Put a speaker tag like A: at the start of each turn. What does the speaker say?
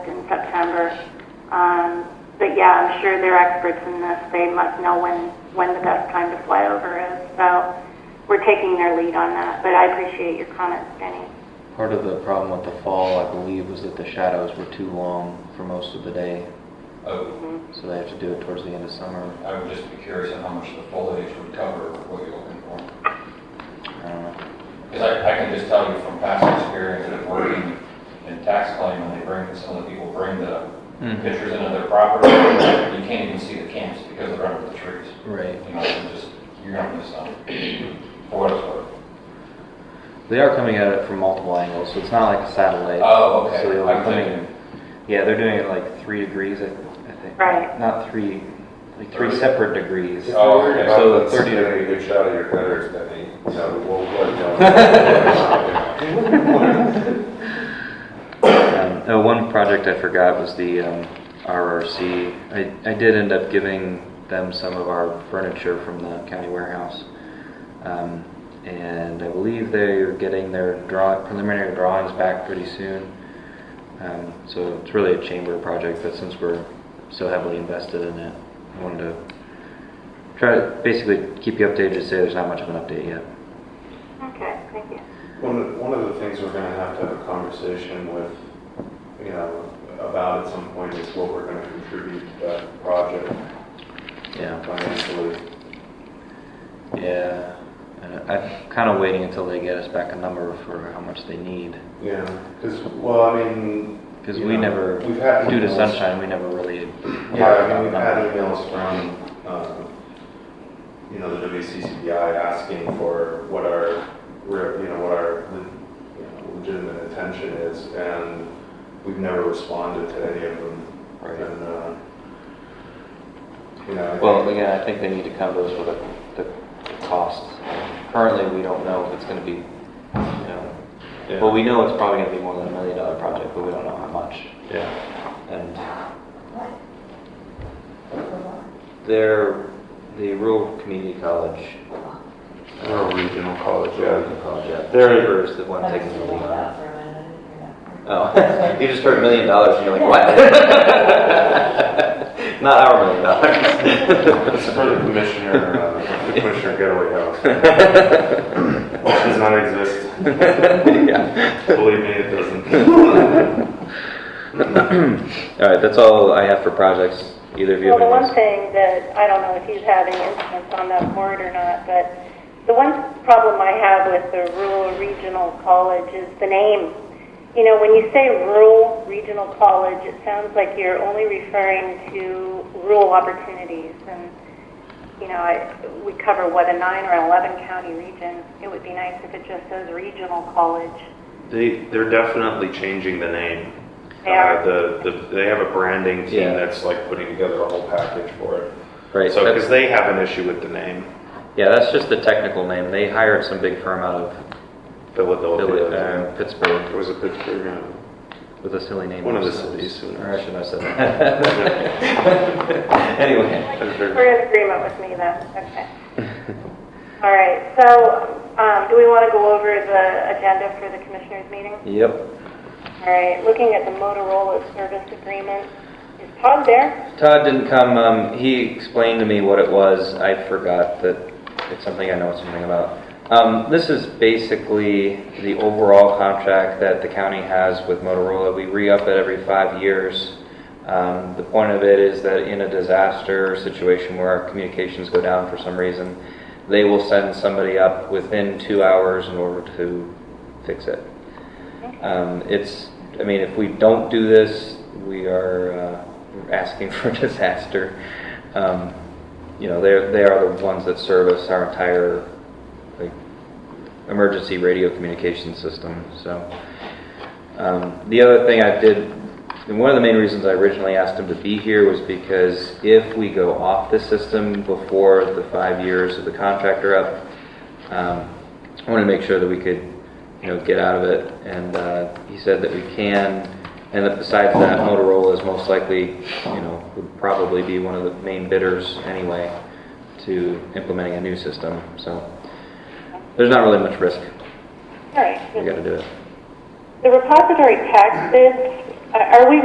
A: September. Um, but yeah, I'm sure they're experts in this. They must know when, when the best time to fly over is. So we're taking their lead on that, but I appreciate your comments, Jenny.
B: Part of the problem with the fall, I believe, was that the shadows were too long for most of the day,
C: Oh,
B: so they have to do it towards the end of summer.
C: I would just be curious on how much the foliage would cover what you're looking for.
B: I don't know.
C: Because I, I can just tell you from past experience of working in tax claim, when they bring, some of the people bring the
B: Mhm.
C: pictures into their property, you can't even see the camps because they're under the trees.
B: Right.
C: You know, you just, you're gonna miss something, for what it's worth.
B: They are coming at it from multiple angles, so it's not like a satellite.
C: Oh, okay.
B: So they'll be
C: I'm
B: coming-
C: thinking-
B: Yeah, they're doing it like three degrees, I, I think.
A: Right.
B: Not three, like three
D: Thirty.
B: separate degrees.
D: If
C: Oh,
D: you're worried
C: okay.
D: about
B: So
D: that,
B: the 30
D: getting a good shot of your headers, then he, you know, we'll let you know.
B: Um, oh, one project I forgot was the um, RRC. I, I did end up giving them some of our furniture from the county warehouse. Um, and I believe they're getting their draw, preliminary drawings back pretty soon. Um, so it's really a chamber project, but since we're so heavily invested in it, I wanted to try to basically keep you updated to say there's not much of an update yet.
A: Okay, thank you.
D: One, of- one of the things we're gonna have to have a conversation with, you know, about at some point is what we're gonna contribute to that project
B: Yeah.
D: financially.
B: Yeah, and I'm kind of waiting until they get us back a number for how much they need,
D: Yeah, because, well, I mean.
B: because
D: you
B: we
D: know,
B: never,
D: we've had
B: due to
D: emails-
B: sunshine, we never really.
D: Yeah, I mean, we've had emails from, um, you know, the WCCBI asking for what our, re- you know, what our le- you know, legitimate intention is, and we've never responded to any of them.
B: Right.
D: And, uh, you know. I
B: Well,
D: think-
B: again, I think they need to come to us with the, the cost. Currently, we don't know if it's gonna be, you know,
D: Yeah.
B: well, we know it's probably gonna be more than a million dollar project, but we don't know how much.
D: Yeah,
B: And they're, the rural community college,
D: or a regional college, yeah.
B: project, they're the one taking the lead on it. Oh, you just heard million dollars and you're like, what? Not our million dollars.
D: It's for the commissioner, uh, the commissioner getaway house. Which does not exist.
B: Yeah.
D: Believe me, it doesn't.
B: All right, that's all I have for projects. Either of you
A: Well,
B: have
A: the one
B: any?
A: thing that, I don't know if he's having influence on that board or not, but the one problem I have with the rural regional college is the name. You know, when you say rural regional college, it sounds like you're only referring to rural opportunities. And, you know, I- we cover, what, a nine or 11 county region. It would be nice if it just says regional college.
E: They, they're definitely changing the name.
A: They are.
E: Uh, The, the, they have a branding
B: Yeah.
E: team that's like putting together a whole package for it.
B: Right,
E: So, because
B: that's-
E: they have an issue with the name,
B: yeah, that's just the technical name. They hired some big firm out of Philly,
E: Philadelphia.
B: uh, Pittsburgh
E: It was a Pittsburgh, um, yeah.
B: with a silly name.
E: One of the
B: themselves.
E: cities, who knows?
B: Or I shouldn't have said that. Anyway.
E: Pittsburgh.
A: We're in agreement with me then, okay. All right, so um, do we want to go over the agenda for the commissioners' meeting?
B: Yep.
A: All right, looking at the Motorola service agreement, is Todd there?
B: Todd didn't come. Um, he explained to me what it was. I forgot that it's something I know something about. Um, this is basically the overall contract that the county has with Motorola. We re-up it every five years. Um, the point of it is that in a disaster situation where our communications go down for some reason, they will send somebody up within two hours in order to fix it. Um, It's, I mean, if we don't do this, we are uh, asking for disaster. Um, You know, they're, they are the ones that service our entire, like, emergency radio communication system, so. Um, The other thing I did, and one of the main reasons I originally asked him to be here was because if we go off the system before the five years of the contract are up, um, I wanted to make sure that we could, you know, get out of it, and uh, he said that we can, and that besides that, Motorola is most likely, you know, would probably be one of the main bidders anyway to implementing a new system, so there's not really much risk.
A: All
B: We
A: right.
B: gotta do it.
A: The repository tax bids, uh, are are we